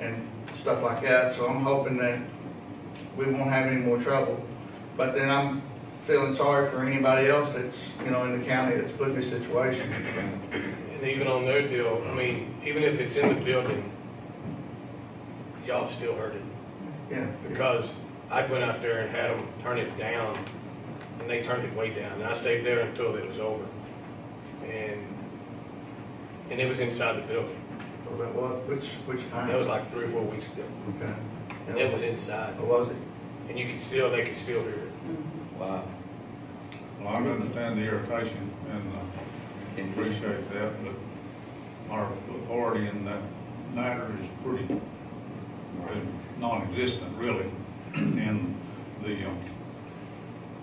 and stuff like that, so I'm hoping that we won't have any more trouble. But then I'm feeling sorry for anybody else that's, you know, in the county that's put in this situation. And even on their deal, I mean, even if it's in the building, y'all still heard it. Yeah, Because I went out there and had them turn it down, and they turned it way down, and I stayed there until it was over. And, and it was inside the building. Well, that was- which, which time? That was like three or four weeks ago, Okay. and it was inside, What was it? and you could still, they could still hear it. Wow. Well, I understand the irritation and uh, appreciate that, but our authority in that matter is pretty, is non-existent really. And the, um,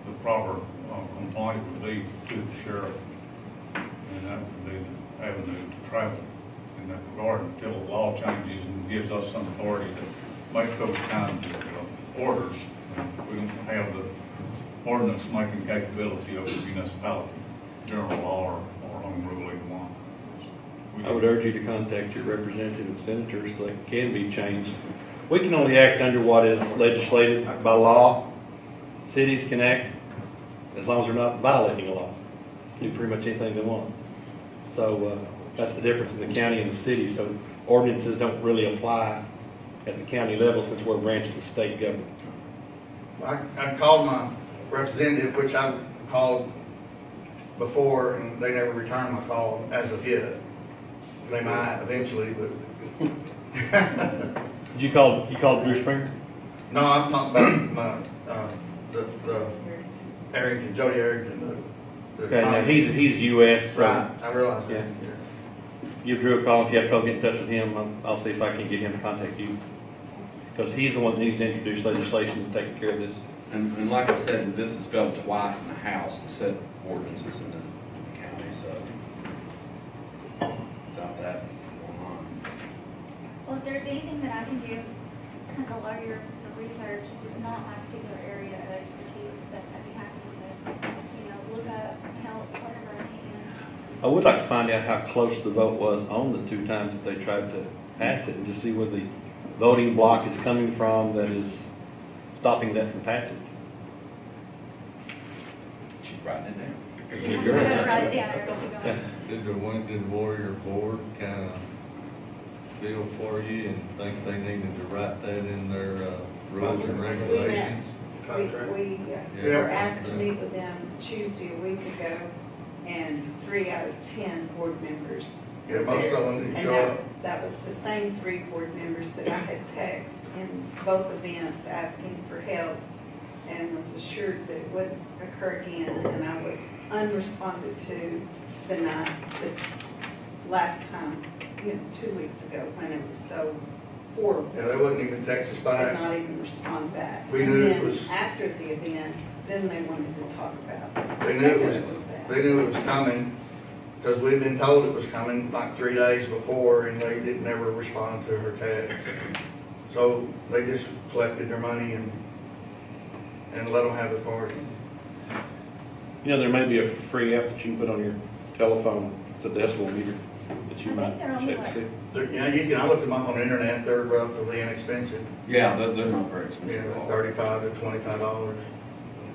the proper uh, complaint would be to the sheriff. And that would be the avenue to travel in that regard until the law changes and gives us some authority to make those kinds of uh, orders. We don't have the ordinance making capability of the municipality, general law or, or on Rule one. We I would urge you to contact your representative and senators so that can be changed. We can only act under what is legislated by law. Cities can act as long as they're not violating a law. Do pretty much anything they want. So, uh, that's the difference in the county and the city, so ordinances don't really apply at the county level since we're a branch of the state government. I, I called my representative, which I called before, and they never returned my call as of yet. They might eventually, but, Did you call, you called Drew Springer? no, I was talking about my, uh, the, the Arrington, Jody Arrington, the. the- Okay, now, he's, he's uh, US, so Right, I realize that, Yeah. yeah. give Drew a call, if you have trouble getting in touch with him, I'll, I'll see if I can get him to contact you. Because he's the one that needs to introduce legislation to take care of this. And, and like I said, this is spelled twice in the House to set ordinances in the in the county, so without that going on. Well, if there's anything that I can do as a lawyer for research, this is not my particular area of expertise, but I'd be happy to, you know, look up, help, whatever I can. I would like to find out how close the vote was on the two times that they tried to pass it, and just see where the voting block is coming from that is stopping that from passing. She's writing it Write it down. down, it'll be gone. Did the Winton Warrior Board kind of deal for you and think they needed to write that in their uh, rules and regulations? We, Contract. we uh, Yeah. were asked to meet with them Tuesday a week ago, and three out of ten board members Yeah, were most of there. them didn't And show that- up. That was the same three board members that I had texted in both events asking for help, and was assured that it wouldn't occur again, and I was unresponded to the night, this last time, you know, two weeks ago, when it was so horrible Yeah, they wouldn't even text us did back. not even respond back. We knew it And then was- After the event, then they wanted to talk about. They knew it was bad. They knew it was coming, because we'd been told it was coming like three days before, and they didn't ever respond to her text. So they just collected their money and, and let them have the party. You know, there may be a free app that you can put on your telephone, it's a decimal meter, that you I think might they're on the check to see. They're- You know, you can, I looked them up on the internet, they're relatively inexpensive, Yeah, they're, they're not very you expensive at know, all. thirty-five to twenty-five dollars.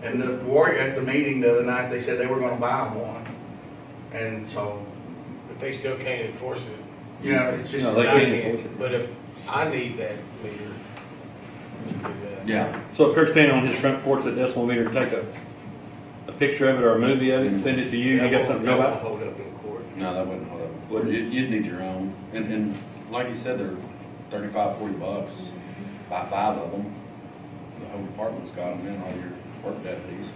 And the warrior, at the meeting the other night, they said they were gonna buy one, and so, But they still can't enforce it. you know, it's just. No, they And I can't enforce it. But if I need that meter, we can do that. Yeah, So if Kirk's standing on his front porch with a decimal meter, and take a, a picture of it or a movie of it and send it to you, you That got won't- something to go that about? won't Hold up in court. no, that wouldn't hold up. Wouldn't? You, you'd need your own, and, and like you said, they're thirty-five, forty bucks, buy five of them. The whole department's got them, and all your work deputies.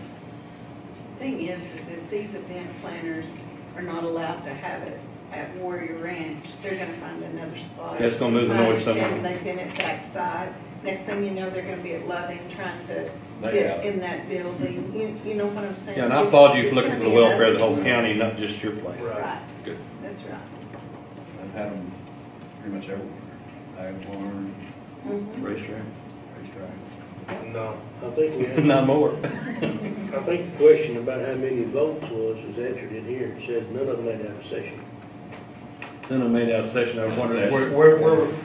Thing is, is if these event planners are not allowed to have it at Warrior Ranch, they're gonna find another spot. That's gonna move the It's my noise somewhere. understanding They've been at backside. Next thing you know, they're gonna be at Loving trying to They have get it. in that building. You, you know what I'm saying? Yeah, and I It's- applaud you it's for looking for gonna the be another welfare of the whole spot. county, not just your place. Right. Good. That's right. I've had them pretty much everywhere. I've learned, Mm-hmm. Mhm. Racetrack. racetrack. No, I think we had, Not more. I think the question about how many votes was is answered in here. It says none of them made out of session. Then I made out a session, I was Out of wondering, session. where, where, where,